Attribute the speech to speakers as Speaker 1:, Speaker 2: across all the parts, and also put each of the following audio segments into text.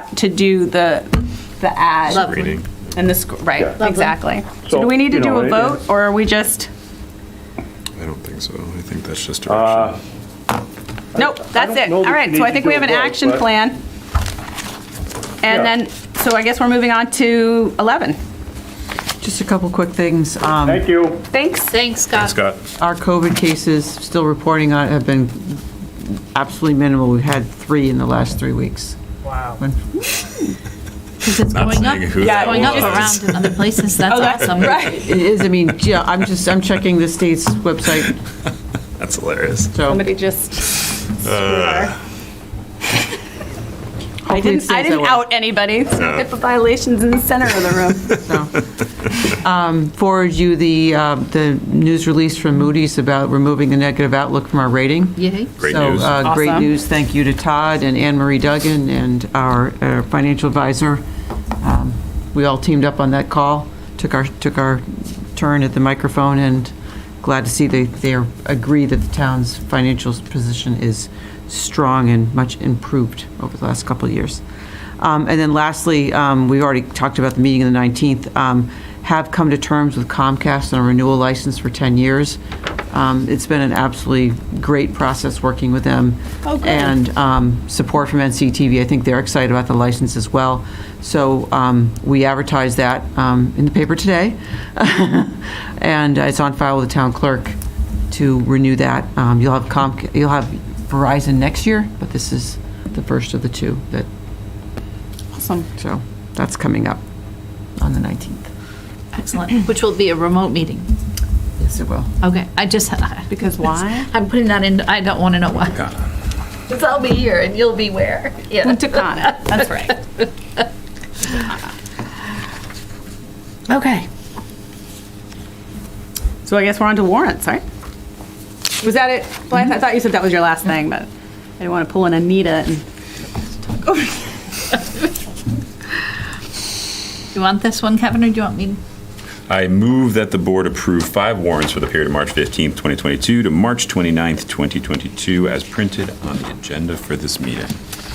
Speaker 1: to do the, the ad
Speaker 2: Reading.
Speaker 1: and the, sc- right,
Speaker 3: Yeah.
Speaker 1: exactly. So
Speaker 3: So,
Speaker 1: do we need to
Speaker 3: you
Speaker 1: do
Speaker 3: know,
Speaker 1: a
Speaker 3: it-
Speaker 1: vote, or are we just,
Speaker 2: I don't think so. I think that's just direction.
Speaker 1: nope, that's
Speaker 3: don't
Speaker 1: it.
Speaker 3: know
Speaker 1: All
Speaker 3: that
Speaker 1: right,
Speaker 3: you
Speaker 1: so I
Speaker 3: need to
Speaker 1: think we
Speaker 3: do
Speaker 1: have
Speaker 3: a
Speaker 1: an
Speaker 3: vote,
Speaker 1: action
Speaker 3: but-
Speaker 1: plan. And
Speaker 3: Yeah.
Speaker 1: then, so I guess we're moving on to 11.
Speaker 4: Just a couple quick things. Um,
Speaker 3: Thank you.
Speaker 1: Thanks.
Speaker 5: Thanks, Scott.
Speaker 2: Scott,
Speaker 4: Our COVID cases, still reporting on, it, have been absolutely minimal. We've had three in the last three weeks. Wow.
Speaker 5: Because it's
Speaker 2: Not
Speaker 5: going up,
Speaker 2: saying who
Speaker 5: it's
Speaker 2: that
Speaker 5: going up
Speaker 2: was.
Speaker 5: around in other places. Oh, That's awesome.
Speaker 1: Right.
Speaker 4: It is, I mean, yeah, I'm just, I'm checking the state's website,
Speaker 2: that's hilarious.
Speaker 4: so.
Speaker 1: Somebody
Speaker 4: Uh.
Speaker 1: just. I
Speaker 4: hopefully it
Speaker 1: didn't, I
Speaker 4: stays that
Speaker 1: didn't
Speaker 4: way.
Speaker 1: out anybody. It's
Speaker 2: No.
Speaker 1: HIPAA violations in the center of the room.
Speaker 4: Forward you the, uh, the news release from Moody's about removing the negative outlook from our rating.
Speaker 5: Yay.
Speaker 2: Great
Speaker 4: So,
Speaker 2: news.
Speaker 4: uh, Great
Speaker 1: Awesome.
Speaker 4: news. Thank you to Todd and Anne Marie Duggan and our uh, financial advisor. Um, We all teamed up on that call, took our, took our turn at the microphone, and glad to see they, they are- agree that the town's financial position is strong and much improved over the last couple of years. Um, And then lastly, um, we already talked about the meeting on the 19th, um, have come to terms with Comcast on a renewal license for 10 years. Um, It's been an absolutely great process working with them. And um, support from NCTV, I think they're excited about the license as well. So um, we advertised that um, in the paper today, and it's on file with the town clerk to renew that. Um, You'll have Comc, you'll have Verizon next year, but this is the first of the two that,
Speaker 1: Awesome.
Speaker 4: so that's coming up on the 19th.
Speaker 5: Excellent. Which will be a remote meeting.
Speaker 4: Yes, it will.
Speaker 5: Okay, I just.
Speaker 1: Because why?
Speaker 5: I'm putting that in, I don't want to know why. Because I'll be here and you'll be where. Yeah.
Speaker 1: Punta Cana. That's right.
Speaker 5: Okay.
Speaker 1: So I guess we're on to warrants, right? Mm-hmm. Was that it? Blythe, I thought you said that was your last thing, but I didn't want to pull in Anita and.
Speaker 5: You want this one, Kevin, or do you want me?
Speaker 2: I move that the board approve five warrants for the period of March 15th, 2022 to March 29th, 2022, as printed on the agenda for this meeting.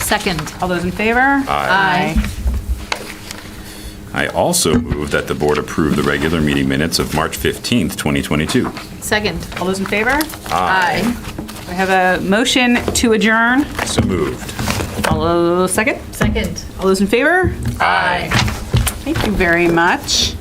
Speaker 5: Second.
Speaker 1: All those in favor?
Speaker 5: Aye.
Speaker 2: I also move that the board approve the regular meeting minutes of March 15th, 2022.
Speaker 5: Second.
Speaker 1: All those in favor?
Speaker 5: Aye.
Speaker 1: We have a motion to adjourn.
Speaker 2: So moved.
Speaker 1: All those, second?
Speaker 5: Second.
Speaker 1: All those in favor?
Speaker 5: Aye.
Speaker 1: Thank you very much.